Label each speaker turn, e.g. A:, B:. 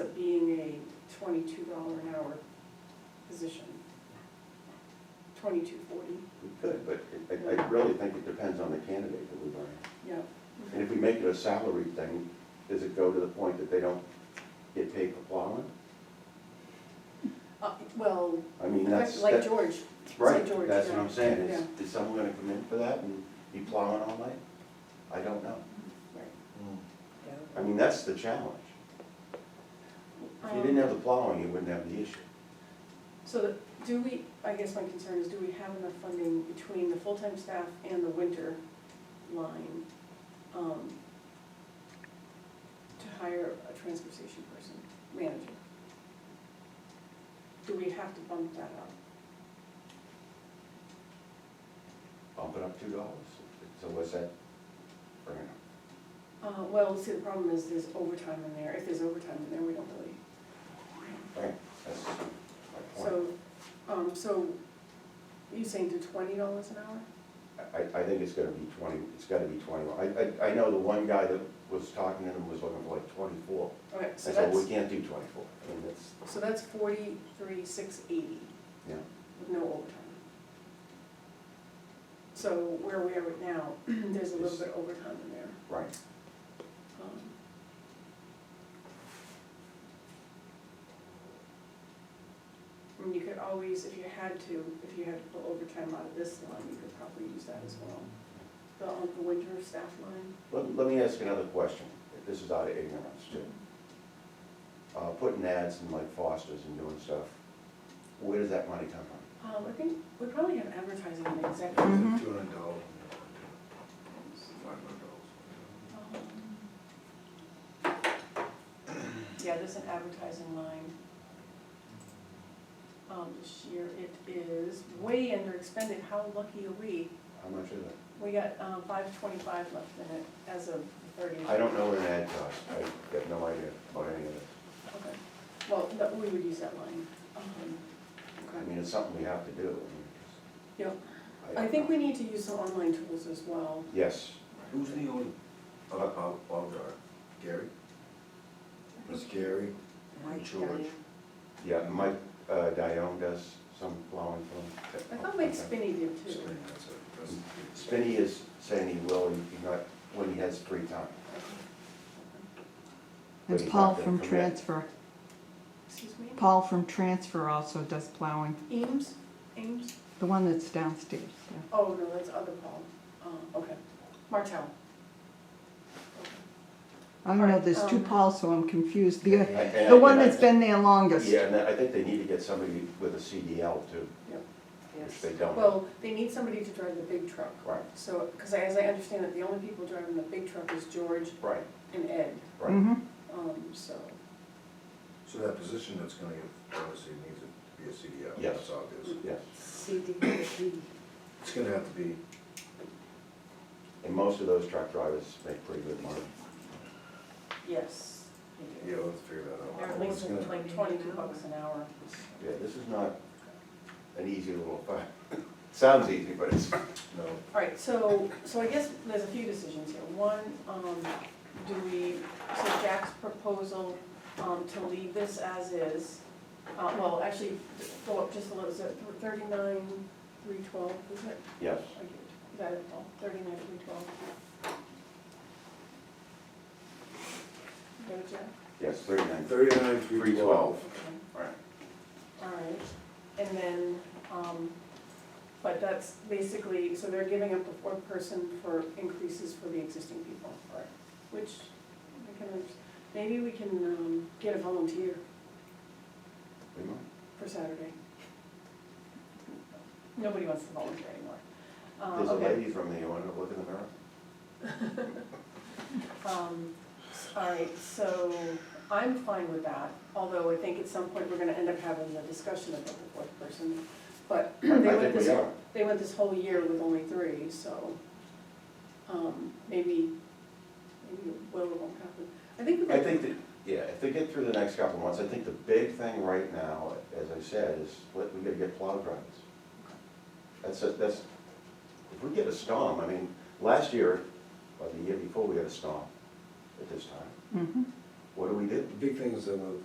A: twenty-two dollar an hour position. Twenty-two forty,
B: We could, but I- I, I really think it depends on the candidate that we bring.
A: yeah.
B: And if we make it a salary thing, does it go to the point that they don't get paid for plowing?
A: Uh, Well,
B: I mean, that's,
A: like
B: that's,
A: George,
B: right,
A: like George,
B: that's
A: yeah,
B: what I'm saying, is,
A: yeah.
B: is someone gonna come in for that and be plowing all night? I don't know. I mean, that's the challenge. If you didn't have the plowing, you wouldn't have the issue.
A: Um, So that- do we, I guess my concern is, do we have enough funding between the full-time staff and the winter line um, to hire a transfer station person, manager? Do we have to bump that up?
B: Bump it up two dollars, so what's that? bring it up?
A: Uh, Well, see, the problem is there's overtime in there. If there's overtime in there, we don't really
B: Right, that's my point.
A: So, um, so you saying to twenty dollars an hour?
B: I, I think it's gonna be twenty, it's gotta be twenty. I, I, I know the one guy that was talking to them was looking for like twenty-four.
A: Okay, so
B: I said, we
A: that's,
B: can't do twenty-four, I mean, that's,
A: so that's forty-three, six eighty
B: yeah.
A: with no overtime. So where we are right now, there's a little bit of overtime in there.
B: right.
A: Um, I mean, you could always, if you had to, if you had to pull overtime out of this line, you could probably use that as well. The, um, the winter staff line.
B: Let, let me ask another question, this is out of ignorance too. Uh, putting ads in like Foster's and doing stuff, where does that money come from?
A: Um, I think we probably have advertising in the
C: Two
A: executive.
D: Mhm.
C: hundred dollars, five hundred dollars.
A: Um, Yeah, there's an advertising line. Um, this year it is way under expended, how lucky are we?
B: How much is it?
A: We got, um, five twenty-five left in it as of thirty.
B: I don't know what an ad costs, I got no idea about any of this.
A: Okay, well, no, we would use that line. Um,
B: I
A: Okay.
B: mean, it's something we have to do. I mean,
A: Yeah,
B: it's-
A: I think we need to use some online tools as well.
B: Yes,
C: Who's the oh, owner of, of, of the, Gary? It's Gary and George.
B: yeah, Mike, uh, Dione does some plowing for him.
A: I thought Mike Spinney did too.
C: Spinning, that's it, that's it.
B: Spinney is saying he will, he, he might, when he has free time.
D: It's Paul from transfer.
A: Excuse me?
D: Paul from transfer also does plowing,
A: Eames, Eames?
D: the one that's downstairs, yeah.
A: Oh, no, that's other Paul. Uh, okay. Martel.
D: I don't know, there's two
A: Um,
D: Pauls, so I'm confused.
C: Yeah,
D: The,
B: I- and I-
D: the one
B: and I-
D: that's been there longest.
B: Yeah, and I think they need to get somebody with a CDL too, which they don't.
A: Well, they need somebody to drive the big truck.
B: Right,
A: So, because as I understand it, the only people driving the big truck is George
B: right,
A: and Ed,
B: right.
D: Mhm.
A: um, so.
C: So that position that's gonna get, obviously needs to be a CDL,
B: Yes.
C: that's obvious.
B: Yes,
A: CDL.
C: It's gonna have to be,
B: and most of those truck drivers make pretty good money.
A: Yes. they
C: yeah,
A: do.
C: let's figure that
A: They're
C: out.
A: at
C: It's
A: least
C: gonna-
A: like twenty-two bucks an hour.
B: Yeah, this is not an easy little, sounds easy, but it's.
C: No,
A: All right, so, so I guess there's a few decisions here. One, um, do we, so Jack's proposal, um, to leave this as is, uh, well, actually, go up just a little, so thirty-nine, three twelve, is it?
B: Yes,
A: Is that it, Paul? Thirty-nine, three twelve? Go, Jack?
B: yes, thirty-nine.
C: thirty-nine, three twelve.
A: Okay.
B: Right.
A: All right, and then, um, but that's basically, so they're giving up the fourth person for increases for the existing people.
B: Right.
A: Which, I can, under- maybe we can, um, get a volunteer
B: We might.
A: for Saturday. Nobody wants to volunteer anymore. Uh,
B: There's a
A: okay.
B: lady from there, you wanna look in the mirror?
A: Um, s- all right, so I'm fine with that, although I think at some point we're gonna end up having the discussion about the fourth person. But they
B: I
A: went
B: think we
A: this,
B: are.
A: they went this whole year with only three, so, um, maybe, maybe it will or won't happen. I think. we
B: I think that, yeah, if they get through the next couple of months, I think the big thing right now, as I said, is let, we gotta get plow drivers. That's, a- that's, if we get a storm, I mean, last year, or the year before, we had a storm at this time.
D: Mhm.
B: What do we do?
C: The big thing is that uh,